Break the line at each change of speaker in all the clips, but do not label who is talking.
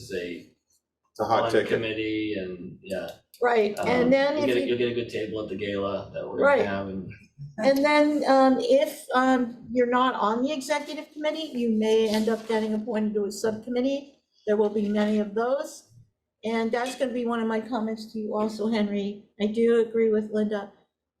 is a
It's a hot
fun
ticket.
committee and, yeah.
Right,
um,
and then
you'll
if
get a-
you
You'll get a good table at the gala that we're gonna
Right.
have and,
And then um, if um, you're not on the executive committee, you may end up getting appointed to a subcommittee. There will be many of those. And that's going to be one of my comments to you also, Henry. I do agree with Linda.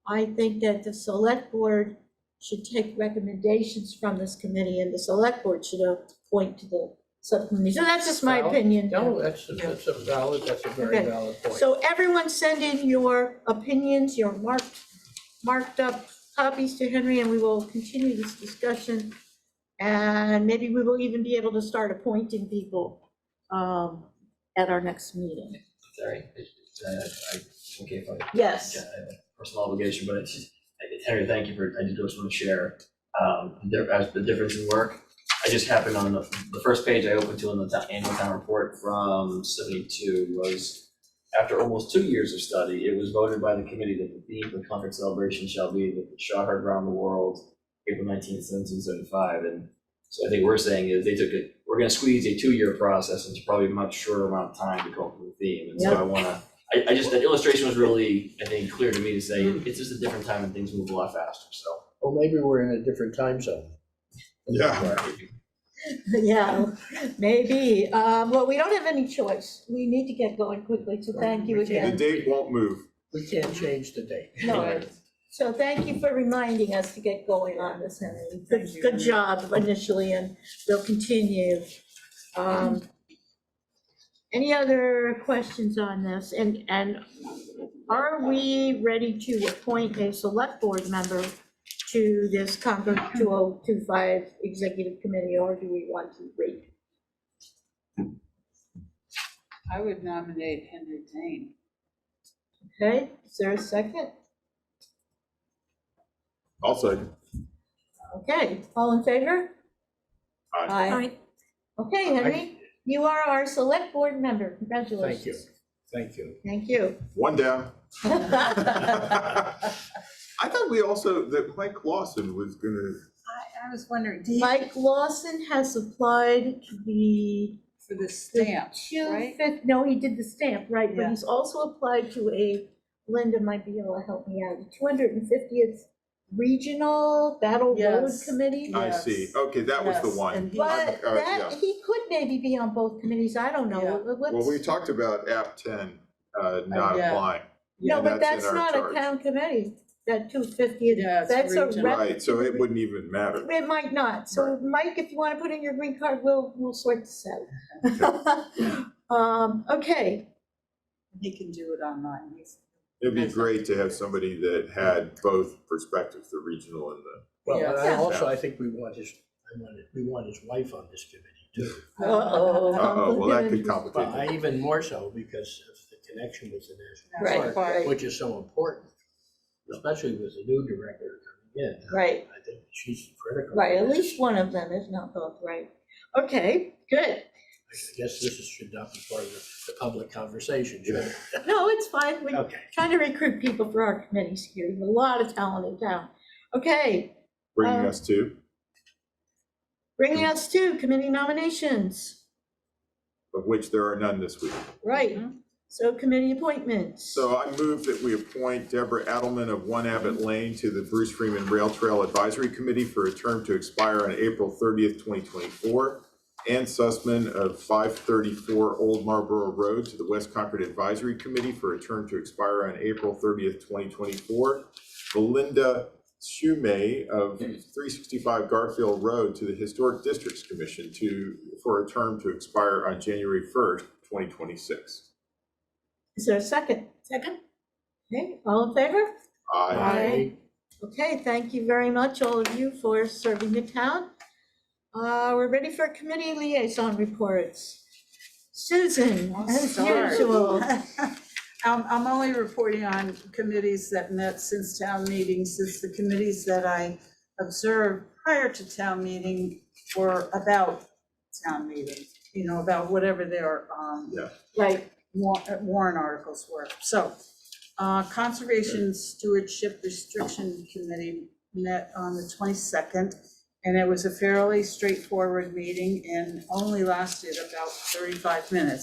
I think that the select board should take recommendations from this committee and the select board should appoint to the subcommittee. So that's just my
Well,
opinion.
No, that's, that's a valid, that's a very
Okay.
valid point.
So everyone send in your opinions, your marked, marked up copies to Henry, and we will continue this discussion. And maybe we will even be able to start appointing people um, at our next meeting.
sorry, I- I, I, okay, if I
Yes,
yeah, I have a uh, personal obligation, but it's just, I- Henry, thank you for, I did just want to share, um, there, as the difference in work. I just happened on the, the first page I opened to in the town, annual town report from seventy-two was, after almost two years of study, it was voted by the committee that the theme for conference celebration shall be that the Shaw heard around the world, April nineteenth, seventeen seventy-five, and so I think we're saying is they took it, we're gonna squeeze a two-year process into probably a much shorter amount of time to come up with a theme, and so I wanna I, I just, that illustration was really, I think, clear to me to say, it's just a different time and things move a lot faster, so.
Well, maybe we're in a different time zone.
Yeah.
yeah, maybe. Um, Well, we don't have any choice. We need to get going quickly, so thank you
We can't-
The
again.
date won't move.
We can't change the date.
No, So thank you for reminding us to get going on this, Henry. Good,
Thank you.
good job initially, and we'll continue. Um, Any other questions on this? And, and are we ready to appoint a select board member to this Concord 2025 Executive Committee, or do we want to wait?
I would nominate Henry Dane.
Okay, is there a second?
I'll second.
Okay, all in favor?
Aye.
Okay, Henry, you are our select board member. Congratulations.
Thank you.
Thank
Thank you.
you.
One down.
I
I thought we also, that Mike Lawson was gonna,
I, I was wondering, do you,
Mike Lawson has applied to the
for the stamp,
two
right?
fifth, no, he did the stamp, right, but
Yeah.
he's also applied to a, Linda might be able to help me out, two hundred and fiftieth Regional Battle Road
Yes.
Committee.
I see.
Yes.
Okay, that was the
Yes,
one.
and he-
But
Uh,
that,
yeah.
he could maybe be on both committees, I don't know.
Yeah.
Let- let's-
Well, we talked about app ten, uh, not
yeah.
applying.
No,
and
but
that's in our
that's not a
charge.
town committee, that two fiftieth,
Yeah, it's
that's a
regional.
rep-
Right, so it wouldn't even matter.
It might not, so Mike, if you want to put in your green card, we'll, we'll sort this out. Um, okay,
He can do it online, he's.
It'd be great to have somebody that had both perspectives, the regional and the,
Well, and I
Yeah.
also, I think we want his, I want, we want his wife on this committee too.
Uh-oh.
uh-oh, well, that could
But
complicate
I
it.
even more so because of the connection with the National
Right,
Park,
right.
which is so important, especially with the new director coming in.
right,
I think she's critical.
right, at least one of them, if not both, right? Okay, good.
I guess this is- should not be part of the, the public conversation, should it?
No, it's fine, we
Okay.
trying to recruit people for our committees here, there's a lot of talent in town. Okay,
Bringing
Um,
us to,
bringing us to committee nominations,
of which there are none this week.
right?
Mm-hmm.
So committee appointments.
So I move that we appoint Deborah Adelman of One Abbott Lane to the Bruce Freeman Rail Trail Advisory Committee for a term to expire on April thirtieth, twenty twenty-four. Ann Sussman of five thirty-four Old Marlboro Road to the West Concord Advisory Committee for a term to expire on April thirtieth, twenty twenty-four. Belinda Schumay of three sixty-five Garfield Road to the Historic Districts Commission to, for a term to expire on January first, twenty twenty-six.
Is there a second? Second. Okay, all in favor?
Aye.
Aye. Okay, thank you very much, all of you, for serving the town. Uh, We're ready for committee liaison reports. Susan,
I'll
as
start.
usual.
Um, I'm only reporting on committees that met since town meeting, since the committees that I observed prior to town meeting were about town meeting, you know, about whatever their, um,
Right,
wa- uh, warrant articles were. So, uh, Conservation Stewardship Restriction Committee met on the 22nd, and it was a fairly straightforward meeting and only lasted about 35 minutes.